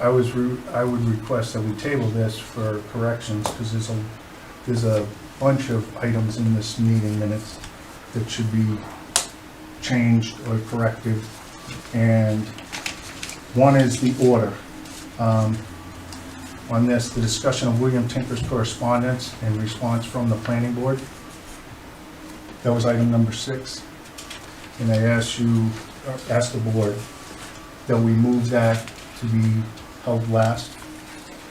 I was, re- I would request that we table this for corrections, because there's a, there's a bunch of items in this meeting minutes that should be changed or corrected, and one is the order. Um, On this, the discussion of William Tinker's correspondence and response from the planning board. That was item number six. And I asked you, uh, asked the board, that we move that to be held last.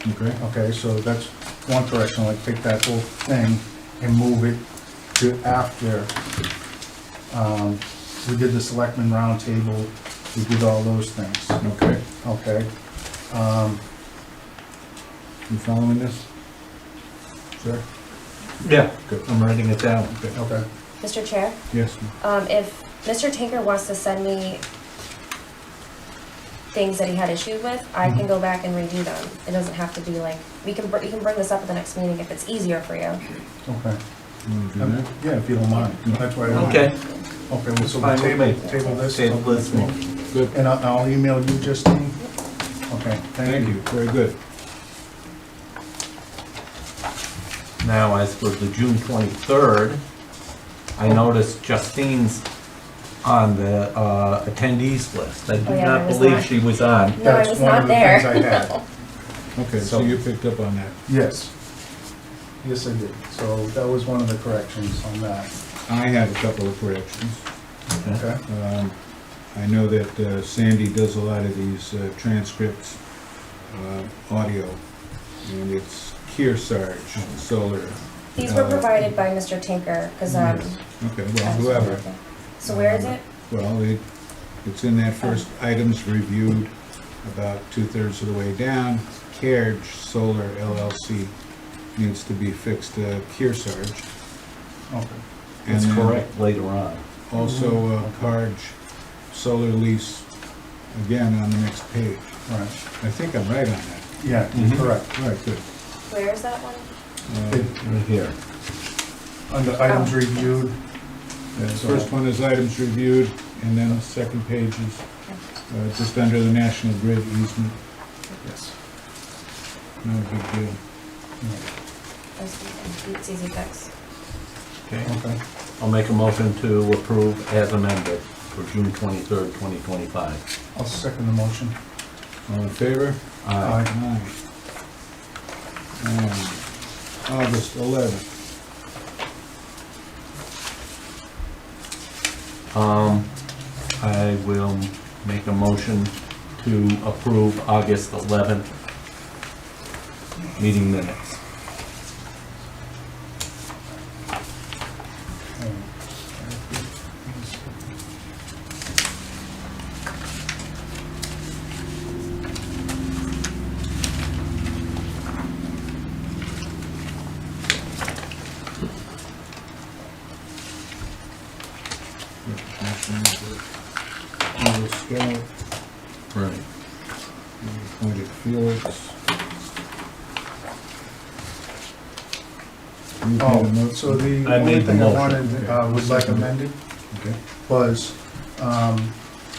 Okay. Okay, so that's one correction, like take that whole thing and move it to after. um, We did the selectmen roundtable, we did all those things, Okay, okay? Um, you following this? Sure, Yeah. Good, I'm writing it down. okay. Mr. Chair, Yes, ma'am. um, if Mr. Tinker wants to send me things that he had issue with, I Mm-hmm. can go back and redo them. It doesn't have to be like, we can, br- you can bring this up at the next meeting if it's easier for you. Okay. you wanna do Um, that? Yeah, if you don't mind, that's why I don't mind. Okay, Okay, well, so we'll Fine table, with me. table this. Table this one. Good, And I'll I'll email you, Justine? Okay, thank you, very good. now as for the June 23rd, I noticed Justine's on the uh, attendees list. I Oh, do yeah, I not was believe not- she was on. No, I was not there. That's one of the things I had. Okay, so So- you picked up on that. Yes. Yes, I did. So that was one of the corrections on that, I have a couple of corrections. okay? Um, I know that uh, Sandy does a lot of these uh, transcripts, uh, audio, and it's Kearsarge Solar. These were Uh, provided by Mr. Tinker, because, um. Okay, well, whoever, So where is it? Mm-hmm. well, it, it's in that first items reviewed about two-thirds of the way down. Kearge Solar LLC needs to be fixed to Kearsarge. Okay. and It's then correct Mm-hmm. later on. Also, uh, Carge Solar Lease, again, on the next page. Right, I think I'm right on that. yeah, Mhm. correct. All right, good. Where is that one? Uh, Right here. Under items Oh. reviewed, The first one is items reviewed, and then the second page is uh, just under the National Grid easement, yes. no big deal. It's easy fix. Okay. Okay, I'll make a motion to approve as amended for June 23rd, 2025. I'll second the motion. All in favor? Aye. Aye. Um, August 11th, Um, I will make a motion to approve August 11th meeting minutes. National Grid. Eagle Scout, Right. we appointed Felix. You made a Oh, motion? so the I only made the thing I motion. wanted, uh, was like amended Okay. was, um,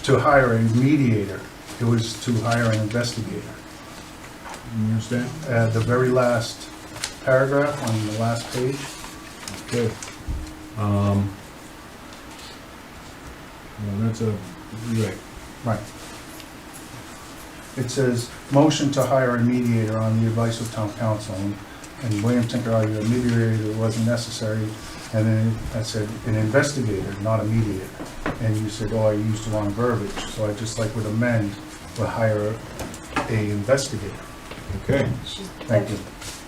to hire a mediator. It was to hire an investigator. You understand? Uh, the very last paragraph on the last page, Okay. Um, Well, that's a, you're right. Right. It says, motion to hire a mediator on the advice of town council, and- and William Tinker argued a mediator wasn't necessary, and then I said, an investigator, not a mediator. And you said, oh, I used the wrong verbiage, so I just like would amend, would hire a investigator. Okay, She's- Thank you.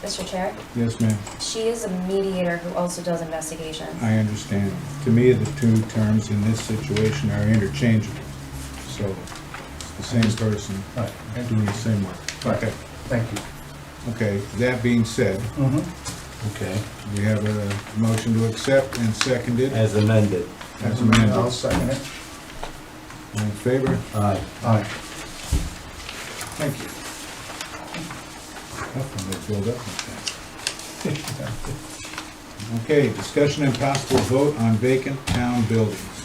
Mr. Chair, yes, ma'am, she is a mediator who also does investigations. I understand. To me, the two terms in this situation are interchangeable, so it's the same person Right, doing the same work. right, thank you. Okay, that being said, Mhm. okay, we have a motion to accept and seconded. as amended. As amended. I'll second it. All in favor? Aye. Aye. Thank you. Tough when they build up like that. Okay, discussion and possible vote on vacant town buildings.